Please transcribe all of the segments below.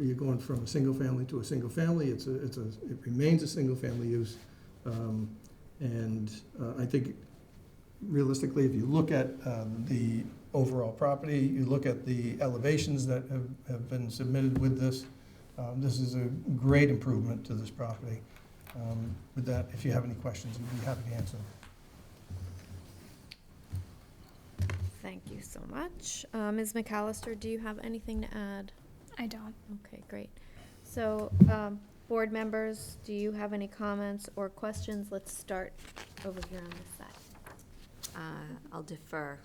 you're going from a single family to a single family, it's a, it's a, it remains a single family use. Um, And uh, I think realistically, if you look at um, the overall property, you look at the elevations that have, have been submitted with this, um, this is a great improvement to this property. Um, With that, if you have any questions, we'd be happy to answer them. Thank you so much. Uh, Ms. McAllister, do you have anything to add? I don't. Okay, great. So, um, board members, do you have any comments or questions? Let's start over here on this side. Uh, I'll defer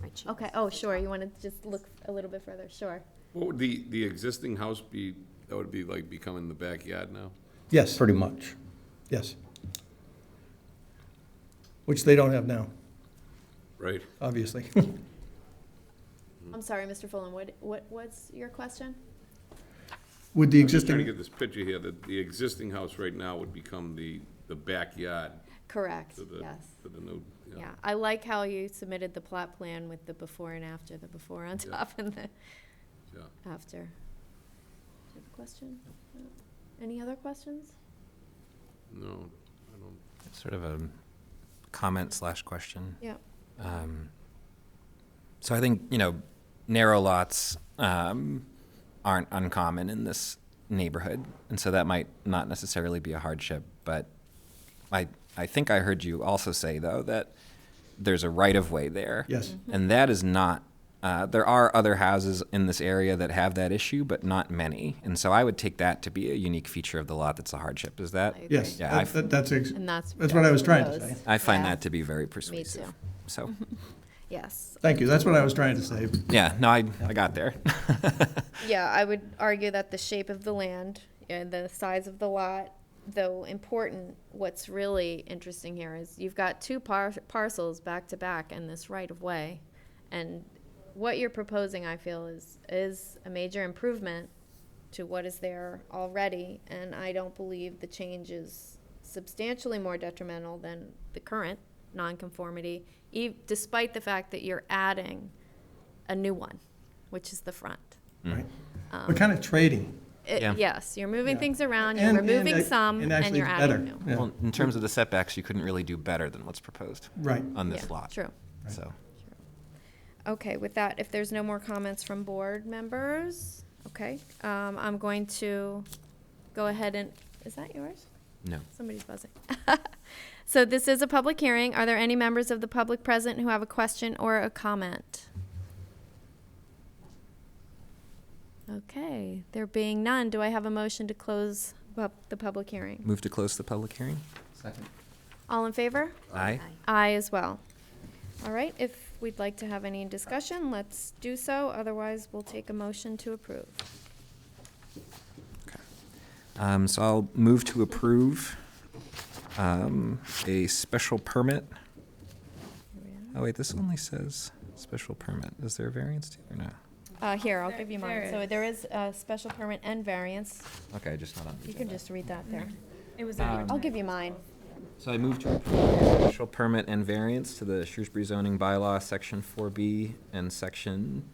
my chief. Okay, oh, sure, you want to just look a little bit further, sure. What would the, the existing house be, that would be like becoming the backyard now? Yes. Pretty much. Yes. Which they don't have now, Right. obviously. I'm sorry, Mr. Fulham, what, what was your question? With the I'm just trying to existing, get this picture here, that the existing house right now would become the, the backyard Correct, to the, yes. to the new, yeah. Yeah, I like how you submitted the plot plan with the before and after, the before on Yeah. top and the yeah. after. Do you have a question? No? Any other questions? No, I don't, Sort of a comment slash question. Yeah. Um, so I think you know, narrow lots um, aren't uncommon in this neighborhood, and so that might not necessarily be a hardship. But I I think I heard you also say though that there's a right of way there. yes, Mm-hmm. And that is not. Uh, there are other houses in this area that have that issue, but not many. And so I would take that to be a unique feature of the lot that's a hardship. Is that? I agree. yes. Yeah, That- I've- that- That's, ex- And that's. That's what I was trying to those. say. I find Yeah. that to be very persuasive. too. So, Yes, thank you, that's what I was trying to say. yeah, no, I, I got there. yeah, I would argue that the shape of the land and the size of the lot, though important, what's really interesting here is you've got two par- parcels back to back and this right of way. And what you're proposing, I feel, is, is a major improvement to what is there already. And I don't believe the change is substantially more detrimental than the current nonconformity, e- despite the fact that you're adding a new one, which is the front. right? Um, We're kind of trading. It- Yeah. Yes, you're moving Yeah. things around, you're And- removing and- some, and, actually you're it's adding better. new. Yeah, Well, in terms of the Mm-hmm. setbacks, you couldn't really do better than what's proposed Right, on this Yeah, lot. True. So, Okay, with that, if there's no more comments from board members, okay, um, I'm going to go ahead and is that yours? no. Somebody's buzzing. so this is a public hearing. Are there any members of the public present who have a question or a comment? Okay, there being none, do I have a motion to close pub- the public hearing? Move to close the public hearing? All in favor? Aye. I as well. All right, if we'd like to have any discussion, let's do so. Otherwise, we'll take a motion to approve. Um, so I'll move to approve, um, a special permit. Here we Oh wait, this only says special permit. Is there a variance to it or not? are. Uh, here, I'll There- give you mine. there So there is a special permit and variance. Okay, just not on the You can agenda. just read that there. It was. Um, I'll give you mine. So I move to approve special permit and variance to the Shrewsbury zoning bylaw, section four B and section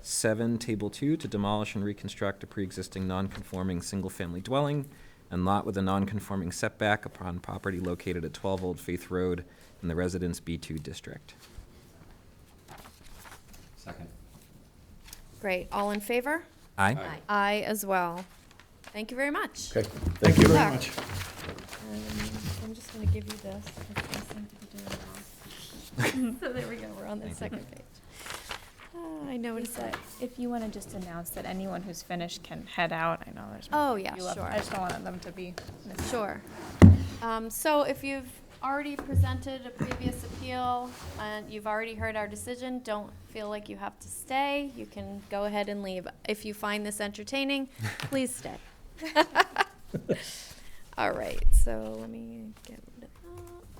seven, table two, to demolish and reconstruct a pre-existing non-conforming single-family dwelling and lot with a non-conforming setback upon property located at twelve Old Faith Road in the Residence B two district. Second. Great. All in favor? Aye. Aye. I as well. Thank you very much. Okay, thank you very luck. much. Um, I'm just gonna give you this. I think I seem to be doing it wrong. So there we go, we're on the second page. Ah, I know what to say. If you want to just announce that anyone who's finished can head out, I know there's. Oh, yeah, you left- sure. I just don't want them to be. missed out. Sure. Um, So if you've already presented a previous appeal and you've already heard our decision, don't feel like you have to stay. You can go ahead and leave. If you find this entertaining, please stay. All right, so let me get rid of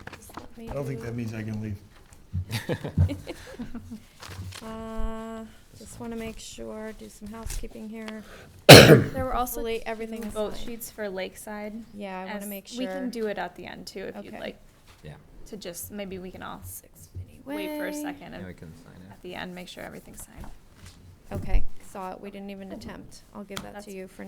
that. Just let me I don't think do- that means I can leave. Uh, Just want to make sure, do some housekeeping here. There were also Hopefully everything everything is vote fine. sheets for Lakeside. Yeah, I wanna as- make We can sure. do it at the end too, if Okay. you'd like, Yeah. to just, maybe we can all s- Six feet wait for a away. second Now we and can sign at the end, make sure everything's signed. Okay, saw it, we didn't even attempt. I'll give that That's- to you for